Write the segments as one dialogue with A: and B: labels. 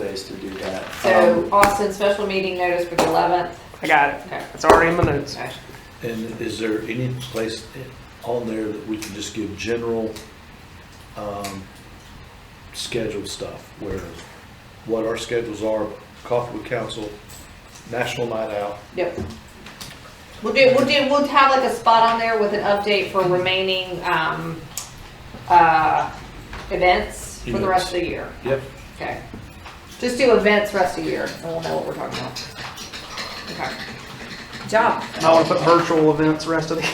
A: ways to do that.
B: So
A: Um,
B: Austin, special meeting notice for the eleventh.
C: I got it.
B: Okay.
C: It's already in my notes.
B: Okay.
D: And is there any place on there that we can just give general, um, scheduled stuff? Where, what our schedules are, coffee with council, national night out,
B: Yep. We'll do, we'll do, we'll have like a spot on there with an update for remaining, um, uh, events for the rest of the year.
D: Yep.
B: Okay. Just do events rest of the year and we'll know what we're talking about. Okay. Good Job.
C: I want to put virtual events rest of the.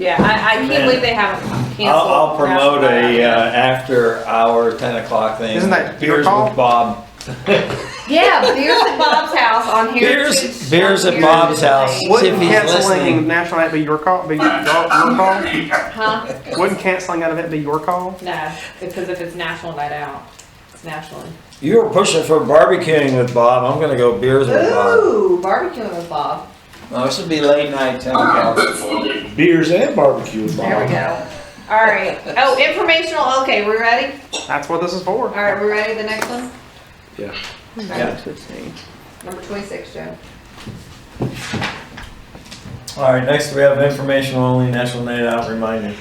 B: Yeah, I, I can't believe they haven't canceled.
A: I'll, I'll promote a, uh,
B: National Night Out.
A: after hour, ten o'clock thing.
C: Isn't that beer
A: Beers
C: call?
A: with Bob.
B: Yeah, beers at Bob's house on here.
A: Beers, uh, beers at Bob's house.
C: Wouldn't
A: If he's
C: canceling
A: listening.
C: National Night be your call? Be your, your call?
B: Huh?
C: Wouldn't canceling that event be your call?
B: No, because if it's national night out, it's national.
A: You were pushing for barbecuing with Bob. I'm gonna go beers with Bob.
B: Ooh, barbecuing with Bob.
A: No, this would be late night, ten o'clock.
D: beers and barbecue.
B: There we go. All right. Oh, informational. Okay, we ready?
C: That's what this is for.
B: All right, we ready? The next one,
D: Yeah.
E: Hmm.
A: Yeah.
B: number twenty-six, Joe.
A: All right, next we have informational only National Night Out reminder.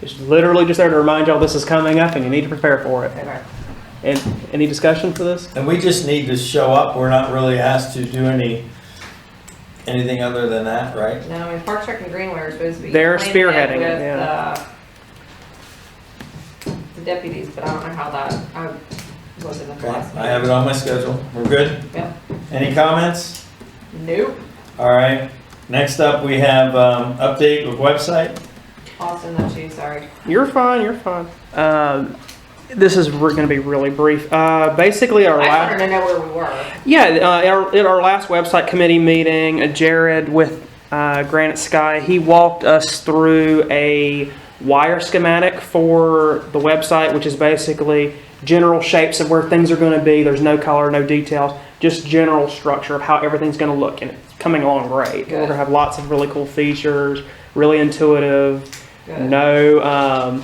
E: It's literally just there to remind y'all this is coming up and you need to prepare for it.
B: Okay.
E: And any discussion for this?
A: And we just need to show up. We're not really asked to do any, anything other than that, right?
B: No, I mean, Park Trek and Greenway are supposed to be.
E: They're
B: planning
E: spearheading it,
B: with,
E: yeah.
B: uh, The deputies, but I don't know how that. I was in the class.
A: I have it on my schedule. We're good?
B: Yep.
A: Any comments?
B: Nope.
A: All right. Next up, we have, um, update of website.
B: Austin, that's you. Sorry.
E: You're fine, you're fine.
C: Uh,
E: Um, this is re- gonna be really brief. Uh, basically our
B: I
E: last.
B: wanted to know where we were.
E: Yeah, uh, at, our, at our last website committee meeting, uh, Jared with uh, Granite Sky, he walked us through a wire schematic for the website, which is basically general shapes of where things are going to be. There's no color, no details, just general structure of how everything's going to look, and it's coming along great. We're going to
B: Good.
E: have lots of really cool features, really intuitive,
B: Good.
E: no, um,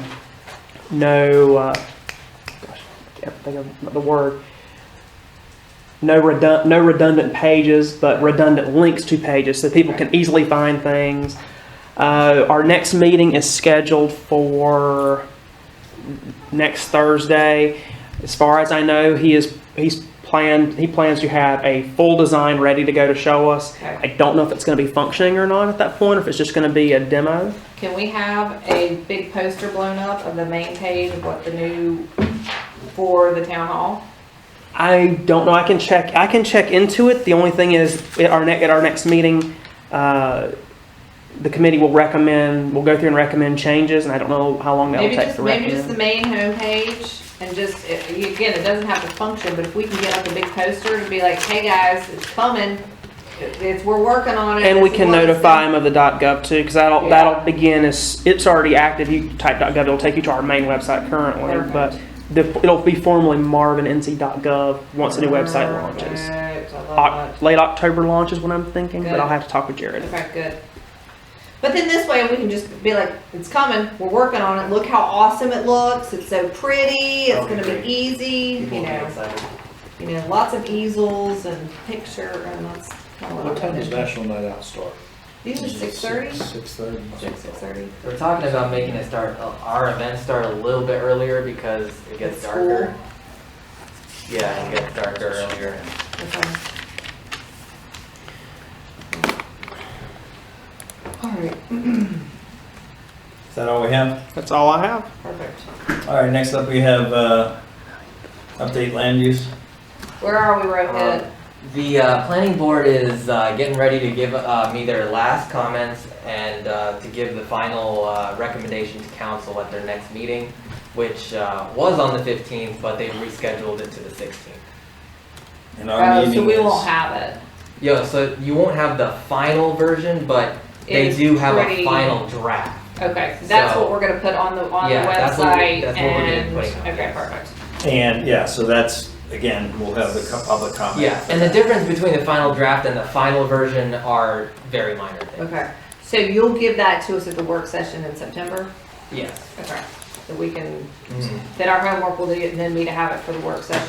E: no, uh, gosh, I can't think of the word. No redund, no redundant pages, but redundant links to pages, so people can easily find things. Uh, our next meeting is scheduled for next Thursday. As far as I know, he is, he's planned, he plans to have a full design ready to go to show us.
B: Okay.
E: I don't know if it's gonna be functioning or not at that point, or if it's just gonna be a demo.
B: Can we have a big poster blown up of the main page of what the new, for the town hall?
E: I don't know. I can check. I can check into it. The only thing is, at our next at our next meeting, uh, the committee will recommend. We'll go through and recommend changes, and I don't know how long that
B: Maybe
E: will take
B: just,
E: to
B: maybe
E: recommend.
B: just the main homepage and just, it- again, it doesn't have to function, but if we can get like a big poster to be like, hey guys, it's coming. It's, we're working on it.
E: and we
B: This is
E: can
B: what it's
E: notify
B: gonna-
E: them of the .gov too, because that'll
B: Yeah.
E: that'll begin as it's already active. You type .gov, it'll take you to our main website currently,
B: Perfect.
E: but the, it'll be formally marvinnc.gov once the new website
B: Oh,
E: launches.
B: Perfect. I love
E: Oc- late October launch is what I'm thinking, but
B: Good.
E: I'll have to talk with Jared.
B: that. Okay, good. But then this way, we can just be like, it's coming, we're working on it, look how awesome it looks, it's so pretty, it's
A: That'll be
B: gonna
A: great.
B: be easy, you know. you know, lots of easels and picture, and that's kind of
D: What
B: what I
D: time does
B: wanted.
D: national night out start?
B: Usually six thirty, six
A: Six thirty.
B: thirty.
F: We're talking about making it start, uh, our events start a little bit earlier because it gets darker. Yeah, it gets darker earlier.
B: All right,
A: Is that all we have?
E: That's all I have.
B: perfect.
A: All right, next up we have, uh, update land use.
B: Where are we, Rohit?
F: The uh, planning board is uh, getting ready to give uh, me their last comments and uh, to give the final uh, recommendation to council at their next meeting, which uh, was on the 15th, but they rescheduled it to the 16th.
A: And our
B: Oh, so
A: meeting
B: we
A: is-
B: won't have it.
F: Yeah, so you won't have the final version, but they
B: It's
F: do have
B: pretty-
F: a final draft.
B: Okay, so that's
F: So-
B: what we're gonna put on the, on the
F: Yeah, that's what we-
B: website
F: that's what we're gonna
B: and,
F: put it on,
B: okay,
F: yes.
B: perfect.
A: And, yeah, so that's, again, we'll have the co- public comment.
F: Yeah, and the difference between the final draft and the final version are very minor things.
B: Okay, so you'll give that to us at the work session in September?
F: Yes.
B: Okay, so we can, that our homework will do, and then we to have it for the work session